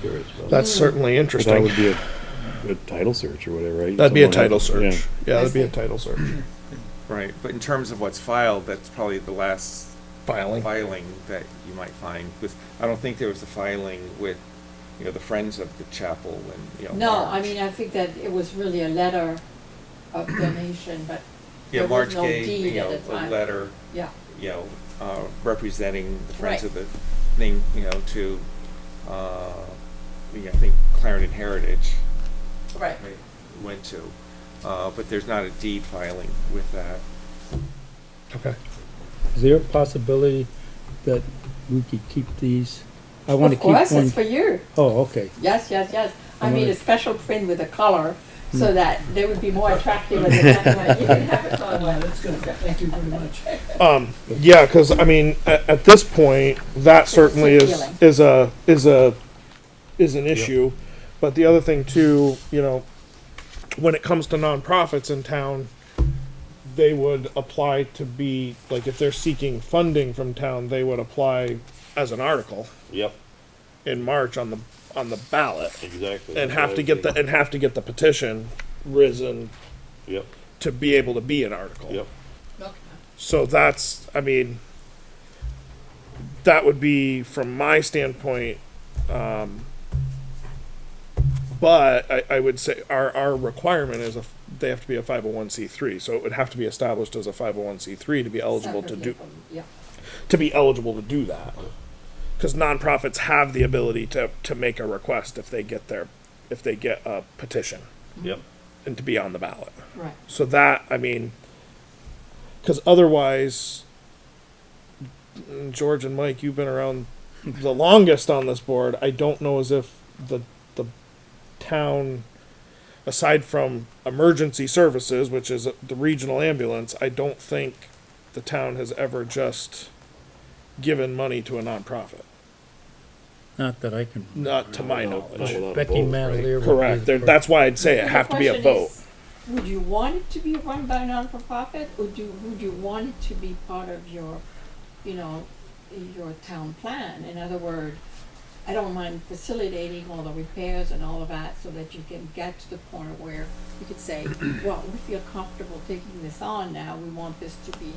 curious about. That's certainly But That interesting. would be a, a title search or whatever, right? That'd be a Someone title had- yeah. search. Yeah, that'd be a title search. Right, but in terms of what's filed, that's probably the last Filing. filing that you might find, because I don't think there was a filing with, you know, the Friends of the Chapel and, you know. No, I March. mean, I think that it was really a letter of donation, but Yeah, there March was no gave, deed you at the know, a time. letter, Yeah, you know, uh, representing the Right. Friends of the thing, you know, to, uh, yeah, I think Clarendon Heritage, right. right, went to. Uh, but there's not a deed filing with that. Okay. Is there a possibility that we could keep these? I want to Of keep one. course, it's for you. Oh, okay. Yes, yes, yes. I I made a wanna- Hmm. special print with a color so that they would be more attractive at the time when you can have it on one. That's good, thank you very much. Um, yeah, cause I mean, at, at this point, that certainly is, appealing. is a, is a, is an issue. But the other thing too, you know, when it comes to nonprofits in town, they would apply to be, like, if they're seeking funding from town, they would apply as an article Yep, in March on the, on the ballot. exactly. And That's have what to I get the, think. and have to get the petition risen Yep, to be able to be an article. yep. So that's, I mean, that would be from my standpoint. Um, but I, I would say our, our requirement is a, they have to be a 501c3. So it would have to be established as a 501c3 to be eligible to Separately do, from- Yeah, to be eligible to do that. Because nonprofits have the ability to, to make a request if they get their, if they get a petition Yep. Mm-hmm. and to be on the ballot. right. So that, I mean, because otherwise, mm, George and Mike, you've been around the longest on this board. I don't know as if the the town, aside from emergency services, which is the regional ambulance, I don't think the town has ever just given money to a nonprofit. Not that I can. Not to my No, knowledge. not without a vote, Becky right? Mavalier. would be Correct. the There, first. that's why I'd say it The have to be a question vote. is, Would you want it to be run by a non-for-profit, or do, would you want it to be part of your, you know, your town plan? In other words, I don't mind facilitating all the repairs and all of that, so that you can get to the point where you could say, well, we feel comfortable taking this on now, we want this to be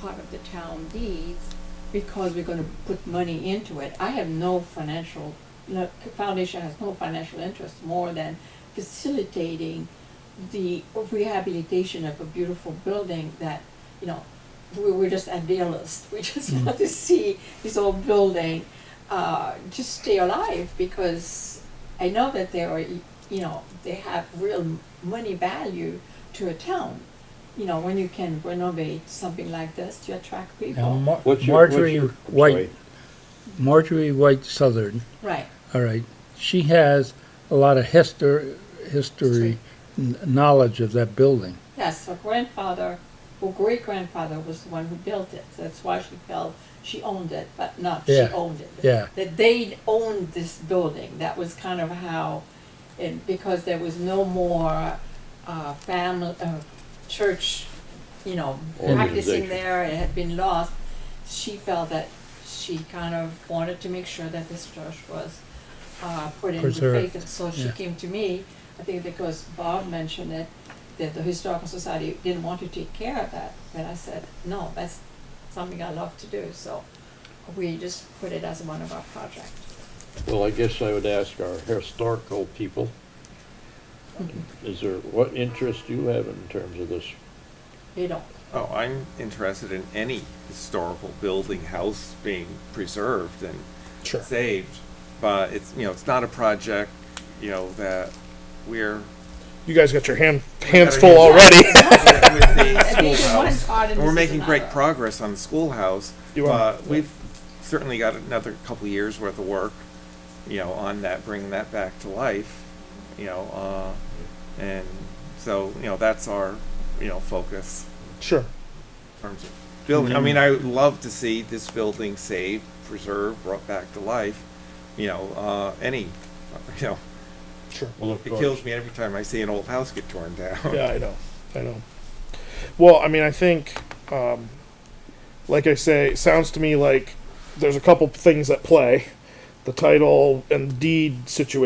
part of the town deeds, because we're gonna put money into it. I have no financial, no, foundation has no financial interest more than facilitating the rehabilitation of a beautiful building that, you know, we, we're just idealists. We just want to see this old building uh, just stay alive because I know that they are, you know, they have real money value to a town. You know, when you can renovate something like this to attract Now, people. Mar- What's your- what's Marjorie your- White, Marjorie White Southern, right. all right, she has a lot of histor- history, n- knowledge of that building. Yes, her grandfather, her great grandfather was the one who built it. That's why she felt she owned it, but not Yeah, she owned it. yeah. That they owned this building. That was kind of how, and because there was no more uh, family, uh, church, you know, practicing Organization. there, it had been lost. She felt that she kind of wanted to make sure that this church was uh, put in good faith, Preserved, and so she yeah. came to me. I think because Bob mentioned it, that the historical society didn't want to take care of that, and I said, no, that's something I love to do. So we just put it as one of our projects. Well, I guess I would ask our historical people, Mm-hmm. is there, what interest do you have in terms of this? You know, Oh, I'm interested in any historical building, house being preserved and Sure. saved. But it's, you know, it's not a project, you know, that we're You guys got your hand, hands our full hands- already. with the I think in one schoolhouse. part and And we're this is making great another. progress on the schoolhouse. You are. but We've certainly got another couple of years worth of work, you know, on that, bringing that back to life, you know, uh, and so, you know, that's our, you know, focus sure. in terms of building. I mean, I would love to see this building saved, preserved, brought back to life, you know, uh, any, you know, Sure. Well, it kills me every time I see an old house get torn down. Yeah, I know. I know. Well, I mean, I think, um, like I say, it sounds to me like there's a couple things at play. the title and deed situation.